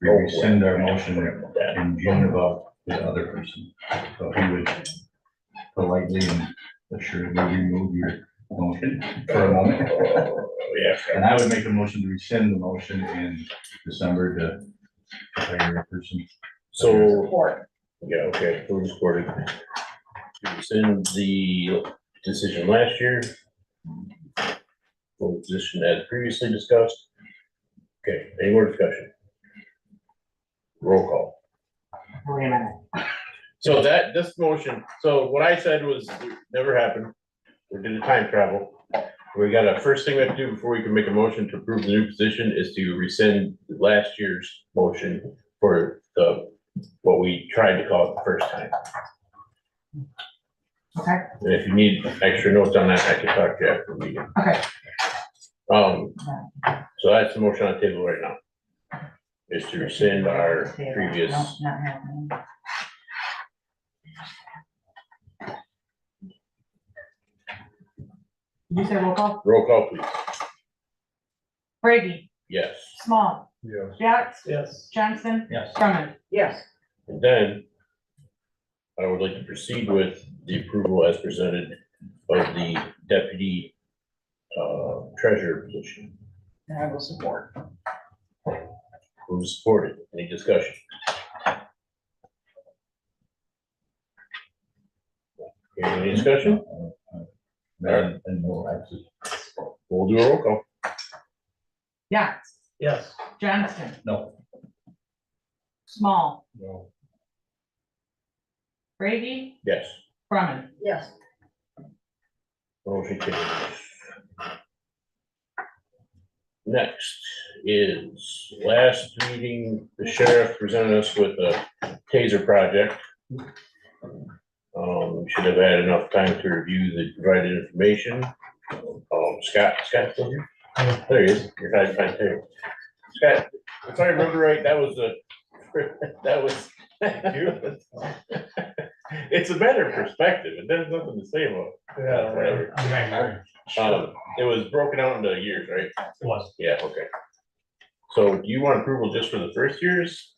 we rescind our motion in June about the other person. So he would politely and assuredly remove your motion for a moment. Yeah. And I would make a motion to rescind the motion in December to hire a person. So, Support. yeah, okay, we're just recording. Rescind the decision last year. For the Position as previously discussed. Okay, any more discussion? Roll call. Wait a minute. So that, this motion, so what I said was, never happened. We did a time travel. We got a, first thing we have to do before we can make a motion to approve the new position is to rescind last year's motion for the, what we tried to call it the first time. Okay, And if you need extra notes on that, I can talk to you after the meeting. okay. Um, so that's the motion on the table right now. Is to rescind our previous, No, Not happening. Did you say roll call? roll call please. Brady, Yes. Small, Yes. Yax, Yes. Johnson, Yes. Drummond. Yes. And then I would like to proceed with the approval as presented of the deputy uh, treasurer position. And I will support. Who is supported? Any discussion? Any discussion? And uh, and no exit. We'll do a roll call. Yax, Yes. Johnson, No. Small, No. Brady, Yes. Drummond. Yes, Motion carries. Next is last meeting, the sheriff presented us with a taser project. Um, we should have had enough time to review the provided information. Um, Scott, Scott, still here? there he is, you're hiding behind there. Scott, if I remember right, that was a, that was. It's a better perspective, and there's nothing to say about it. Yeah, Whatever. whatever. Um, it was broken out into years, right? Was. Yeah, okay. So do you want approval just for the first years?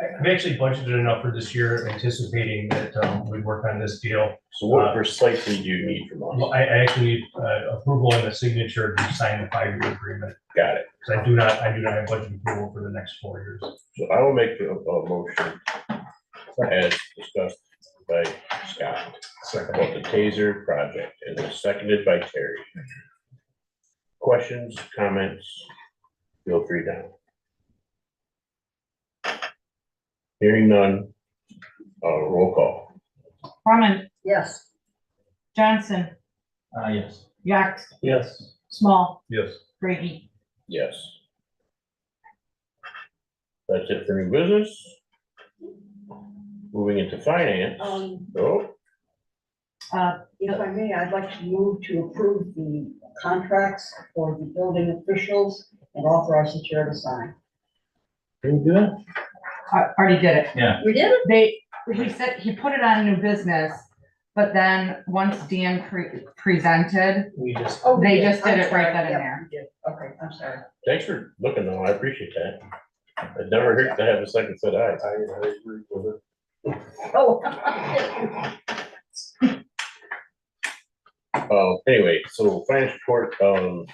I- We actually budgeted enough for this year anticipating that um, we'd work on this deal. So what precisely do you need from us? Well, I, I actually need uh, approval and a signature to sign the five-year agreement, Got it. because I do not, I do not have budget approval for the next four years. So I will make a, a motion as discussed by Scott about the TASER project and it's seconded by Terry. Questions, comments? Feel free now. Hearing none, uh, roll call. Drummond, yes, Johnson, Uh, Ah, yes. Yax, Yes. Small, Yes. Brady. Yes. That's it for new business. Moving into finance. um, Oh, Uh, if I may, I'd like to move to approve the contracts for the building officials and authorize the chair to sign. can you do that? I Uh, already did it. We did it? they, he said, he put it on new business, but then once Dan pre- presented, We just, Oh, we They just did I'm it right sorry. then and Yep, there. we did. Okay, I'm sorry. Thanks for looking though, I appreciate that. It never hurts to have a second set eye. I agree with it. Oh. Uh, anyway, so finance report, um.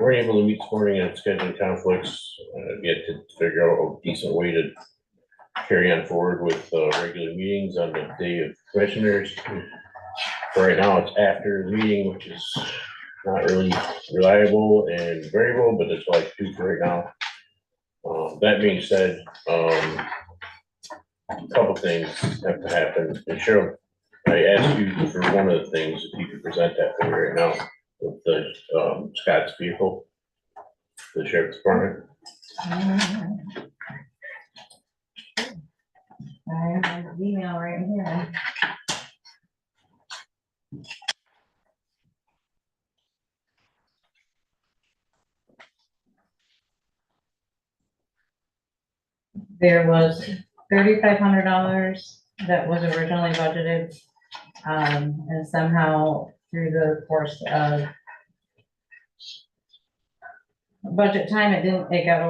We're able to meet this morning and scheduling conflicts, uh, yet to figure out a decent way to. Carry on forward with, uh, regular meetings on the day of commissioners. For right now, it's after the meeting, which is not really reliable and variable, but it's like two for right now. Uh, that being said, um. a Couple things have to happen, and Cheryl I asked you for one of the things, if you could present that for me right now, with the, um, Scott's vehicle, the sheriff's department. I have an email right here. There was thirty-five hundred dollars that was originally budgeted. Um, and somehow through the course of budget time, it didn't, it got